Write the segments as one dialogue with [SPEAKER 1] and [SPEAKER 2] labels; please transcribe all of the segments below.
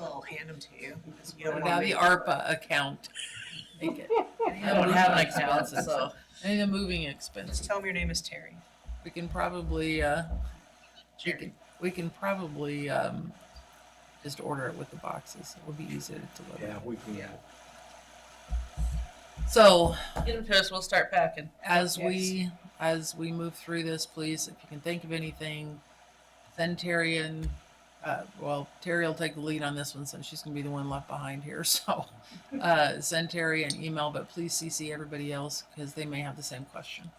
[SPEAKER 1] I'll hand them to you. 'cause you
[SPEAKER 2] What
[SPEAKER 1] don't
[SPEAKER 2] about
[SPEAKER 1] want
[SPEAKER 2] the
[SPEAKER 1] me-
[SPEAKER 2] ARPA account? Make it- I
[SPEAKER 1] don't
[SPEAKER 2] don't have an
[SPEAKER 1] have an
[SPEAKER 2] account,
[SPEAKER 1] account,
[SPEAKER 2] so, I need a moving expense.
[SPEAKER 1] Just tell them your name is Terry.
[SPEAKER 2] We can probably, uh, we
[SPEAKER 1] Jerry.
[SPEAKER 2] can, we can probably, um, just order it with the boxes. It would be easier to deliver.
[SPEAKER 3] Yeah, we can.
[SPEAKER 1] Yeah.
[SPEAKER 2] So
[SPEAKER 4] Get them to us, we'll start packing.
[SPEAKER 2] as
[SPEAKER 1] Yes.
[SPEAKER 2] we, as we move through this, please, if you can think of anything, send Terry and, uh, well, Terry will take the lead on this one since she's gonna be the one left behind here, so. Uh, send Terry an email, but please CC everybody else because they may have the same question.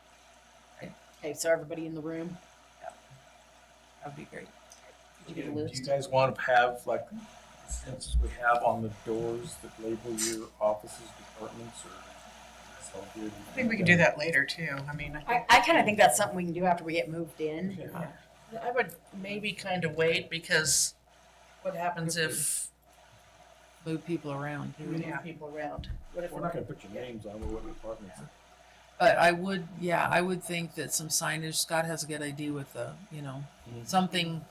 [SPEAKER 5] Okay, so everybody in the room,
[SPEAKER 2] That'd be great.
[SPEAKER 5] did you get a
[SPEAKER 3] Do you
[SPEAKER 5] list?
[SPEAKER 3] guys want to have like, since we have on the doors that label your offices, departments, or?
[SPEAKER 1] I think we can do that later too. I mean, I
[SPEAKER 5] I,
[SPEAKER 1] think,
[SPEAKER 5] I kinda think that's something we can do after we get moved in.
[SPEAKER 4] I would maybe kind of wait because what happens if
[SPEAKER 2] Move people around
[SPEAKER 4] we
[SPEAKER 2] too.
[SPEAKER 4] move
[SPEAKER 1] Yeah.
[SPEAKER 4] people around?
[SPEAKER 5] What if
[SPEAKER 3] We're not gonna put your names on what departments.
[SPEAKER 2] But I would, yeah, I would think that some signage, Scott has a good idea with the, you know,
[SPEAKER 3] Mhm.
[SPEAKER 2] something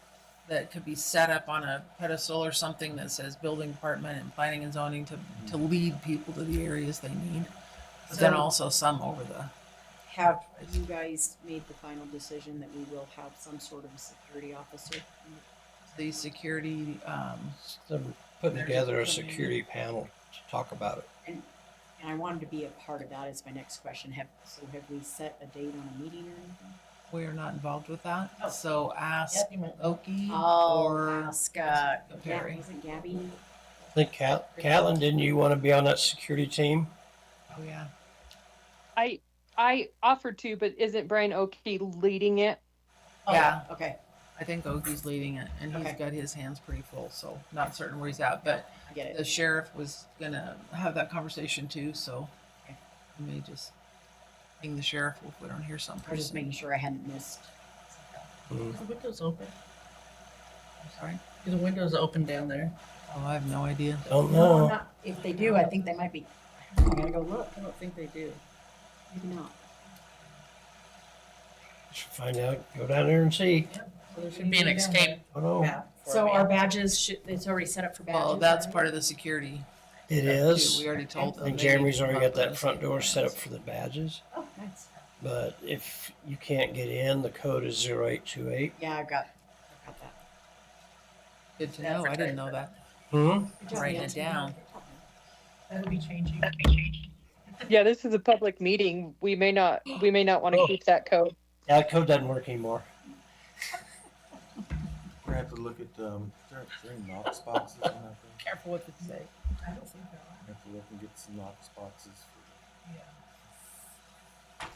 [SPEAKER 2] that could be set up on a pedestal or something that says building department and planning and zoning to, to lead people to the areas they need. But then
[SPEAKER 5] So-
[SPEAKER 2] also some over the,
[SPEAKER 5] Have you guys made the final decision that we will have some sort of a security officer?
[SPEAKER 2] the security, um,
[SPEAKER 6] So we're putting together a security panel to talk about it.
[SPEAKER 5] And I wanted to be a part of that is my next question. Have, so have we set a date on a meeting or anything?
[SPEAKER 2] we are not involved with that.
[SPEAKER 5] Oh.
[SPEAKER 2] So ask Oki
[SPEAKER 5] I'll
[SPEAKER 2] or
[SPEAKER 5] Oh, ask, uh, Gabby,
[SPEAKER 2] Perry.
[SPEAKER 5] isn't Gabby?
[SPEAKER 6] I think Cat, Catlin, didn't you want to be on that security team?
[SPEAKER 2] Oh, yeah.
[SPEAKER 7] I I offered to, but isn't Brian Oakey leading it?
[SPEAKER 5] Oh,
[SPEAKER 2] Yeah.
[SPEAKER 5] Okay,
[SPEAKER 2] I think Oki's leading it and he's
[SPEAKER 5] Okay.
[SPEAKER 2] got his hands pretty full, so not certain where he's at, but
[SPEAKER 5] I get
[SPEAKER 2] the
[SPEAKER 5] it.
[SPEAKER 2] sheriff was gonna have that conversation too, so we may just ping the sheriff if we don't hear
[SPEAKER 5] I was just making
[SPEAKER 2] something.
[SPEAKER 5] sure I hadn't missed.
[SPEAKER 6] Mm.
[SPEAKER 4] The window's open.
[SPEAKER 2] Sorry?
[SPEAKER 4] The window's open down there.
[SPEAKER 2] Oh, I have no idea.
[SPEAKER 6] Don't
[SPEAKER 5] No,
[SPEAKER 6] know.
[SPEAKER 5] not- If they do, I think they might be, I'm gonna go look,
[SPEAKER 4] I don't think they do.
[SPEAKER 5] maybe not.
[SPEAKER 6] Should find out. Go down there and see.
[SPEAKER 4] There should be an escape
[SPEAKER 6] Don't know.
[SPEAKER 4] path. for
[SPEAKER 5] So
[SPEAKER 4] me.
[SPEAKER 5] our badges should, it's already set up for badges?
[SPEAKER 2] Well, that's
[SPEAKER 5] right?
[SPEAKER 2] part of the security.
[SPEAKER 6] It
[SPEAKER 2] too.
[SPEAKER 6] is.
[SPEAKER 2] We already told them.
[SPEAKER 6] And
[SPEAKER 2] they need
[SPEAKER 6] Jeremy's
[SPEAKER 2] to
[SPEAKER 6] already
[SPEAKER 2] come up
[SPEAKER 6] got
[SPEAKER 2] with
[SPEAKER 6] that
[SPEAKER 2] a
[SPEAKER 6] front
[SPEAKER 2] safety
[SPEAKER 6] door
[SPEAKER 2] plan.
[SPEAKER 6] set up for the badges.
[SPEAKER 5] Oh, nice.
[SPEAKER 6] But if you can't get in, the code is zero eight two eight.
[SPEAKER 5] Yeah, I've got, I've got that.
[SPEAKER 2] Good to know. I didn't know that.
[SPEAKER 6] Hmm?
[SPEAKER 5] Good job,
[SPEAKER 2] Writing it
[SPEAKER 5] Nancy.
[SPEAKER 2] down.
[SPEAKER 1] that'll be changing.
[SPEAKER 7] Yeah, this is a public meeting. We may not we may not want to
[SPEAKER 6] Oh.
[SPEAKER 7] keep that code.
[SPEAKER 6] Yeah, that code doesn't work anymore.
[SPEAKER 3] We're gonna have to look at, um, there are three Knox boxes on that thing.
[SPEAKER 2] Careful what you say.
[SPEAKER 1] I don't think they're on.
[SPEAKER 3] We have to look and get some Knox boxes. for-
[SPEAKER 1] Yeah.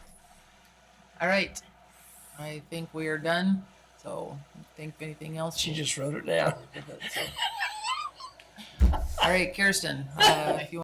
[SPEAKER 2] All right. I think we are done. So think of anything else.
[SPEAKER 6] She just wrote it down.
[SPEAKER 2] All right, Kirsten, uh, if you